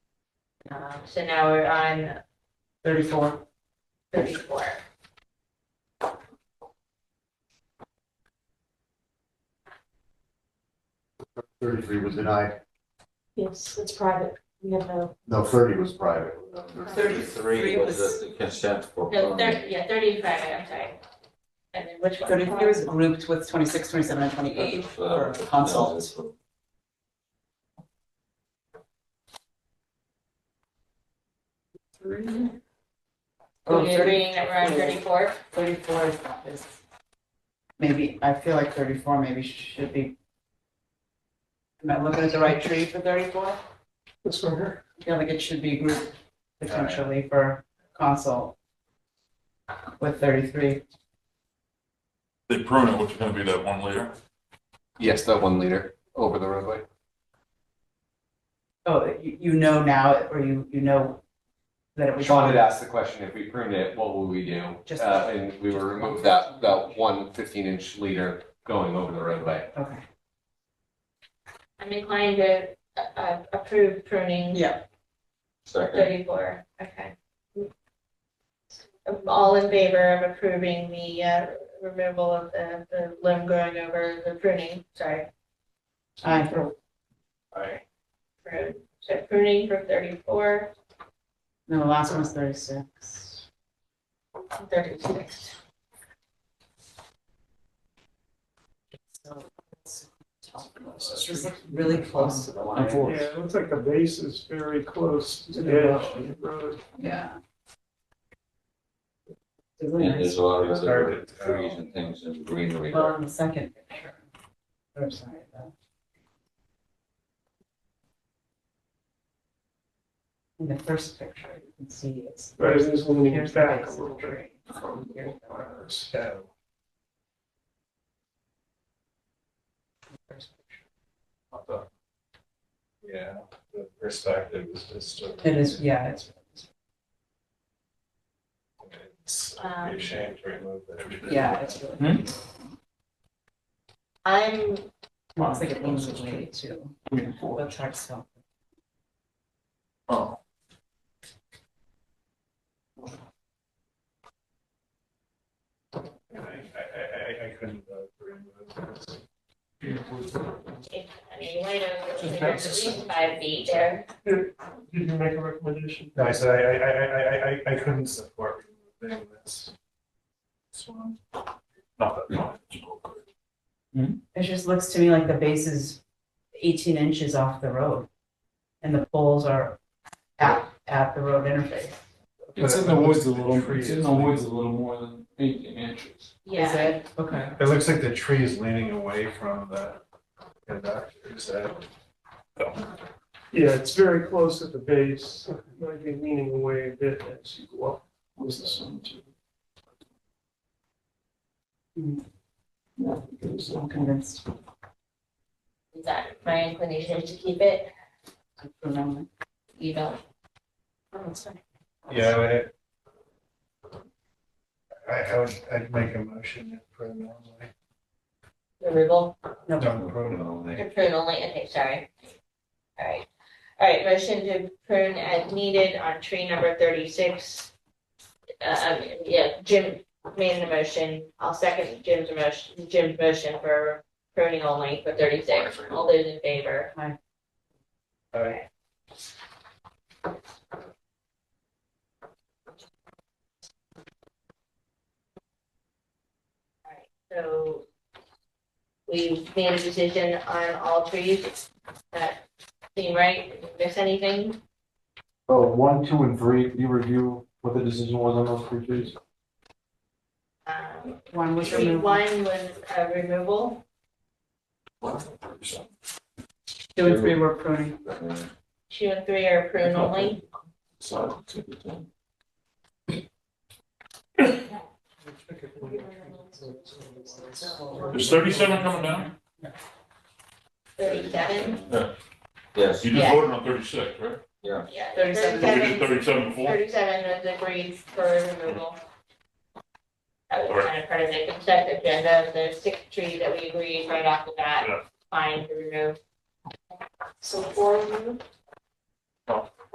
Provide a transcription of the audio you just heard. Um, so now we're on Thirty-four. thirty-four. Thirty-three was denied, Yes, it's private. We have no, no, thirty was private. Thirty-three was the consent for. No, permanent. thirty, yeah, thirty-five, I'm sorry. And then which one? Thirty-three was grouped with twenty-six, twenty-seven, and twenty-eight That was, for uh, consult. Are Oh, we 30 agreeing that we're on thirty-four? Thirty-four is not this. Maybe, I feel like thirty-four maybe should be. Am I looking at the right tree for thirty-four? This one here. I feel like it should be grouped potentially for consult with thirty-three. The permanent, which is gonna be that one later. Yes, that one leader over the roadway. Oh, you, you know now, or you, you know that it was. Sean had asked the question, if we pruned it, what will we do? Just- Uh, and we will remove that, that one fifteen inch leader going over the roadway. Okay, I'm inclined to, uh, uh, approve pruning yeah, Second, thirty-four, okay. All in favor of approving the, uh, removal of the, the limb growing over the pruning, sorry, I, aye, prune, so pruning for thirty-four, no, the last one was thirty-six. and thirty-six. So it's really close to the line. Yeah, it looks like the base is very close to the the edge of the road. Yeah. and there's a lot of It's hard other to tell. trees and things and greenery. Well, in the second picture. I'm sorry. though. In the first picture, you can see it's. But is this one here's the back a base of little the bit? tree. Here's the one, So, the first picture. yeah, the perspective is just. a- It is, yeah, it's, It's Um, ashamed to remove that. yeah, it's really. I'm, Looks like it leans away too. What's hard so. Oh. I, I, I, I couldn't vote for remove this. if, I mean, you might know, Just there's at least five feet there. Did you make a recommendation? No, I said I, I, I, I, I, I couldn't support removing this. This one? Not that, not that. It just looks to me like the base is eighteen inches off the road. And the poles are at, at the road interface. It's in the woods a little, It's in the woods a little more than eighteen inches. Is Yeah, it? Okay. It looks like the tree is leaning away from the conductor, is that? Yeah, it's very close at the base, might be leaning away a bit as you go up. Was this one too? I'm convinced. is that my inclination is to keep it, I'm wrong. you don't. Yeah, I- I, I would, I'd make a motion for the non-like, Removal, No, non-proton. to prune only, okay, sorry. All right, all right, motion to prune as needed on tree number thirty-six. Uh, Um, yeah, Jim made the motion, I'll second Jim's motion, Jim's motion for pruning only for thirty-six, all those in favor. I- So we made a decision on all trees. That seem right? Did we Miss anything? Oh, one, two, and three, can you review what the decision was on those three trees? Um, One was tree removed, one was a removal. two and three were pruning. Uh, Two and three are prune only. so, to the thing. Is thirty-seven coming down? Thirty-seven. Yes, You Yeah. just voted on thirty-six, right? yeah, Yeah, 37. We did thirty-seven. thirty-seven before? Thirty-seven was agreed for removal. That was Alright. kind of part of the consent agenda, the sixth tree that we agreed right off the bat, Yeah. fine to remove. So four removed? Oh.